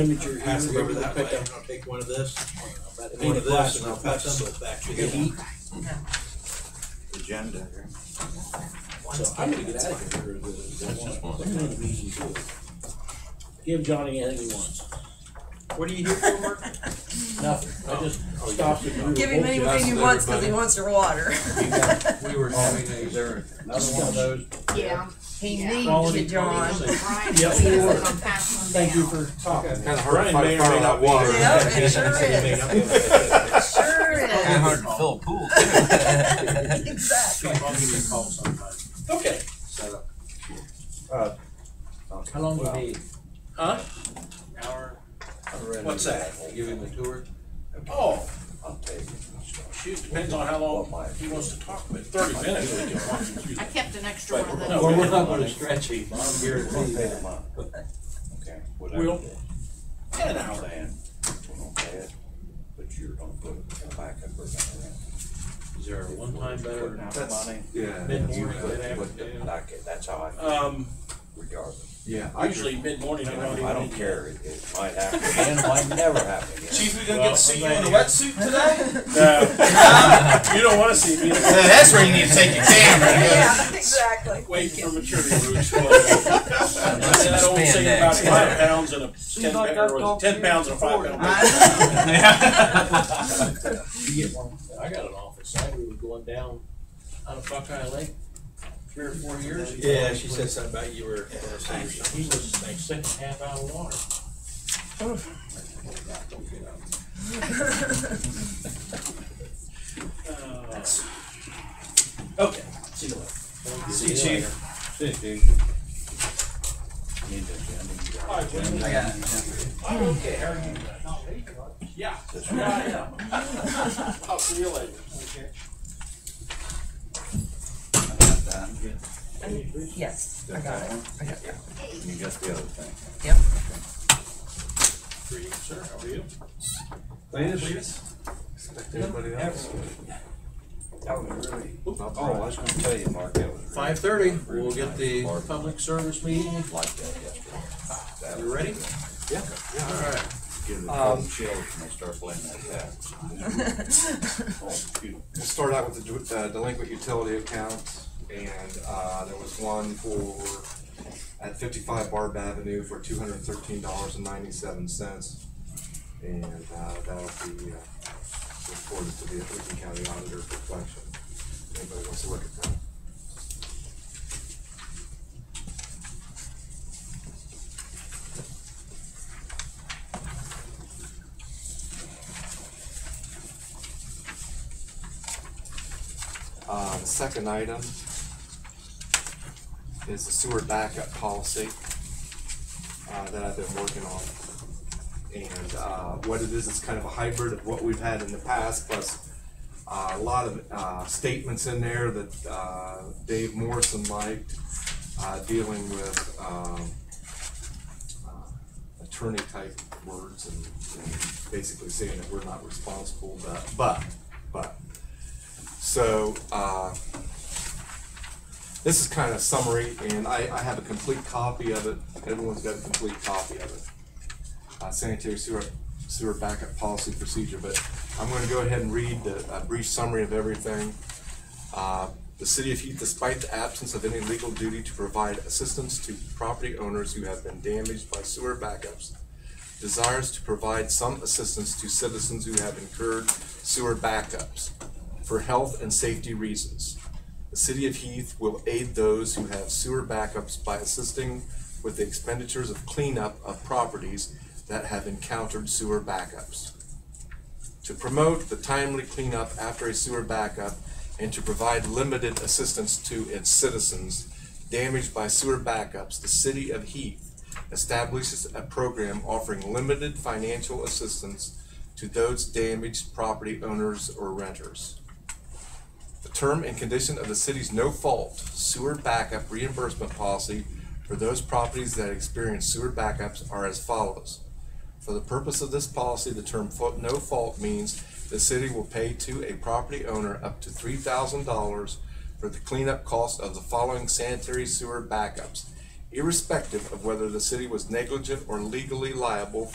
Imager here, Pass it over remember that that way, down. and I'll take one of this, About eight one of o'clock this, and I'll now. pass some back to Eight. him. agenda here. So I'm gonna get out of here. What kind of meeting is it? Give Johnny anything he wants, What are you here for, Mark? nothing, I just Oh, stopped and. grew a Give him whole anything he Just wants because he everybody. wants your water. We were having a, there, another one of those. Yeah. He Yeah. needs Quality you, John. control. Brian, Yeah, he sure. says I'm passing them Thank you down. for talking. Kinda hard to Brian may fight or fire may on not that be water. here. Yeah, it sure He may is. not be able to- Sure is. to fill a pool. Exactly. I'll give you a call sometime. Okay, how long will it be? Huh? Hour, What's that? give him a tour. Oh, I'll take it. shoot, depends on how long he wants to talk, but thirty minutes. we can walk him through I that. kept an extra one of those. Well, we're not gonna stretch him, I'm here We'll pay them up. uh, Okay. whatever. We'll, ten hours. Plan. We're gonna pay it, but you're gonna put it back up or down. Is there a one-time Putting better? out That's- money. Yeah, You Mid-morning, put, mid-afternoon. put it back in. that's how I, Um, regardless. yeah. I usually mid-morning, I don't even. I don't care, it, it might happen again, it might never happen again. Chief, we gonna Well, get to see you I'm in a glad wetsuit today? No. You don't wanna see me, that's where you need to take your camera. Yeah, exactly. wait for maturity to explode. That old saying about five pounds and a ten, like pa- or our was it ten pounds and a five pound. bag? I got an office, I, we were going down out of Buckeye Lake, three or four years ago. Yeah, she said something about you were. He was like six and a half out of water. Okay, see you later. See you Chief. later. Need to agenda, you got All right, agenda. gentlemen. I'm okay, how are you? Yeah. This one. Yeah, yeah. I'll see you later. Yes, I got it. You got the other thing. For you, sir, how are you? Anybody else? That was really. Oh, I was gonna tell you, Mark, that was. really- Five thirty, we'll get the Mark, public service meeting, Like that yesterday. That you ready? Yeah. All right. Give the Um, cold chills when they start playing like that. We'll start out with the du- uh, delinquent utility accounts, and, uh, there was one for, at fifty-five Barb Avenue for two hundred and thirteen dollars and ninety-seven cents. And, uh, that'll be, uh, reported to the Lincoln County Auditor for collection. Anybody wants to look at that? Uh, the second item is the sewer backup policy, uh, that I've been working on. And, uh, what it is, it's kind of a hybrid of what we've had in the past, plus, uh, a lot of, uh, statements in there that, uh, Dave Morrison liked, uh, dealing with, um, uh, attorney type words and, and basically saying that we're not responsible, but, but, but. So, uh, this is kind of summary, and I, I have a complete copy of it. Everyone's got a complete copy of it. Uh, sanitary sewer, sewer backup policy procedure, but I'm gonna go ahead and read the, a brief summary of everything. Uh, The city of Heath, despite the absence of any legal duty to provide assistance to property owners who have been damaged by sewer backups, desires to provide some assistance to citizens who have incurred sewer backups for health and safety reasons. The city of Heath will aid those who have sewer backups by assisting with the expenditures of cleanup of properties that have encountered sewer backups. To promote the timely cleanup after a sewer backup and to provide limited assistance to its citizens damaged by sewer backups, the city of Heath establishes a program offering limited financial assistance to those damaged property owners or renters. The term and condition of the city's no-fault sewer backup reimbursement policy for those properties that experience sewer backups are as follows. For the purpose of this policy, the term fo- no fault means the city will pay to a property owner up to three thousand dollars for the cleanup cost of the following sanitary sewer backups, irrespective of whether the city was negligent or legally liable